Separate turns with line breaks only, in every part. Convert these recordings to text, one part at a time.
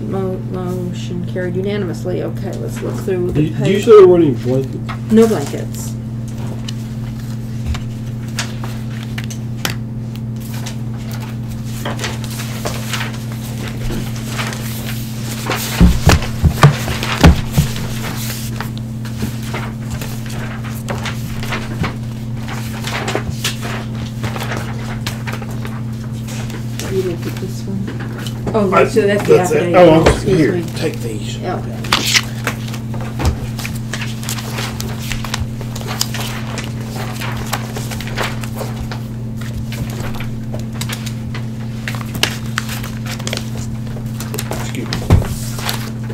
Mo- motion carried unanimously. Okay, let's look through
Do
the
you- do you
page.
say there weren't any blankets?
No blankets. You look at this one. Oh, no, so that's the
That's
affidavit.
it. Oh, I'm-
Excuse
here,
me.
take these.
Yeah, okay.
Excuse me.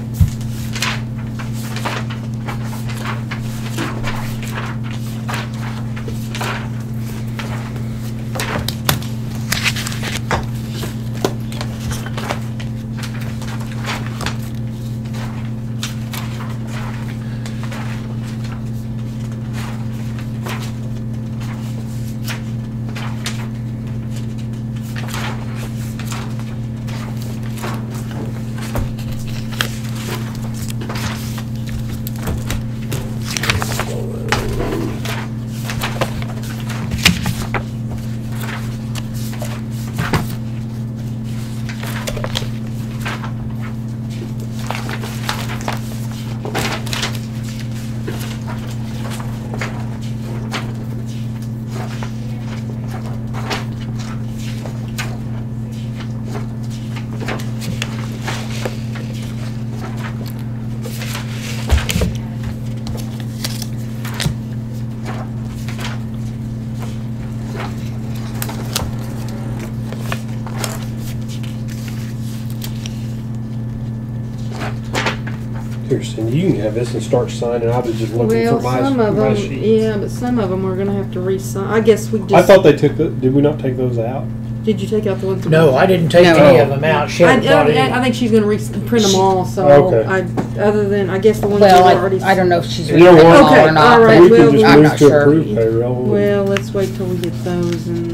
Here, Cindy, you can have this and start signing. I was just looking
Well,
for my,
some of
my
them,
sheet.
yeah, but some of them we're gonna have to re-sign. I guess we
I
just,
thought they took, the- did we not take those out?
did you take out the ones? that-
No, I didn't take
No.
any of them out. She
I,
hadn't brought
I- I
any.
think she's gonna re-print them all, so
Okay.
I, other than, I guess the ones that
Well,
were already.
I, I don't know if she's
You know
ready
what?
or
Okay,
not.
all
but
right,
We
well,
can just
I'm
move
not
to
sure.
approve payroll.
Well, let's wait till we get those and,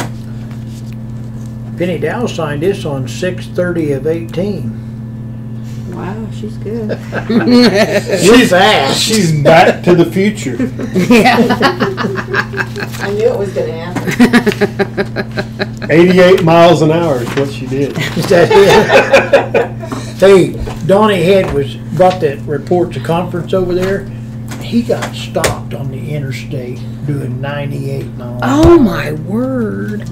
Penny Dow signed this on six thirty of eighteen.
wow, she's good.
She's fast.
She's back to the future.
I knew it was gonna happen.
Eighty-eight miles an hour is what she did.
Is that it? Hey, Donnie Head was, brought that report to conference over there. He got stopped on the interstate doing ninety-eight miles.
Oh my word.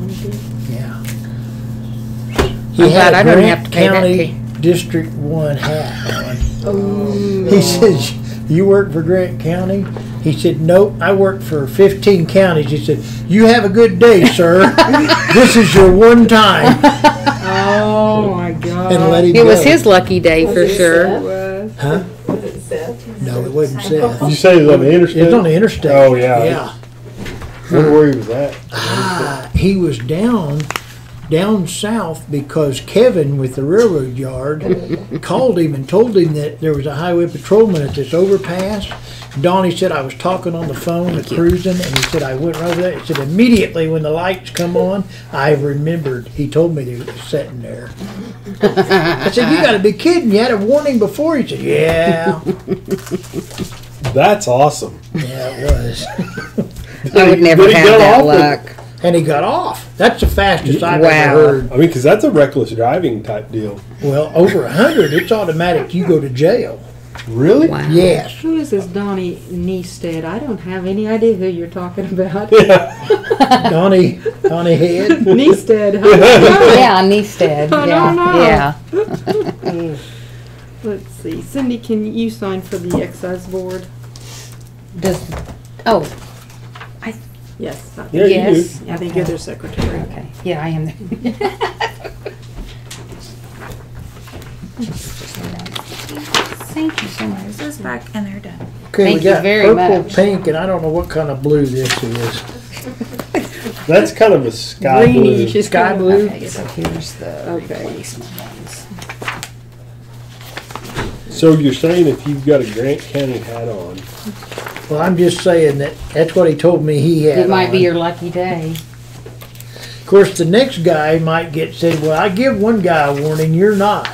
Yeah.
I'm
He
glad
had
I
a
don't
Grant
have to pay that
County
fee.
District One hat on.
Oh.
He says, "You work for Grant County?" He said, "Nope, I work for 15 counties." He said, "You have a good day, sir. this is your one time."
Oh, my God.
And let him
It
go.
was his lucky day
Was
for
it
sure.
Seth?
Was.
Huh?
Was it Seth?
No, it wasn't Seth.
You say it's on the interstate?
It's on the interstate.
Oh, yeah.
Yeah.
Wonder where he was at.
Ah, he was down, down south because Kevin with the railroad yard called him and told him that there was a highway patrolman at this overpass. Donnie said I was talking on the phone, to cruising, and he said I went right over there. He said immediately when the lights come on, I remembered. He told me they were sitting there. I said, "You got to be kidding! You had a warning before." He said, "Yeah,
That's awesome.
yeah, it was."
I would never
But he
have
got
that
off with-
luck.
And he got off. That's the fastest I've
Wow.
ever heard.
I mean, because that's a reckless driving type deal.
Well, over a hundred, it's automatic. You go to jail.
Really?
Wow.
Yes.
Who is this Donnie Neested? I don't have any idea who you're talking about.
Donnie, Donnie Head.
Neested, huh?
Yeah, Neested.
I
Yeah,
don't know.
yeah.
Let's see, Cindy, can you sign for the excise board?
Does oh
Yes, I
Yeah,
think,
you
yes.
I think you're their secretary.
Okay. Yeah, I am.
Thank you so much. This is back and they're done.
Okay,
Thank
we
you
got
very
purple,
much.
pink, and I don't know what kind of blue this is.
do. That's kind of a sky blue.
Greenish, it's
Sky
kinda-
blue.
Okay, so here's the
Okay.
replacement ones.
So you're saying if you've got a Grant County hat on,
Well, I'm just saying that that's what he told me he had.
It might be
on.
your lucky day.
Of course, the next guy might get said, "Well, I give one guy a warning, you're not."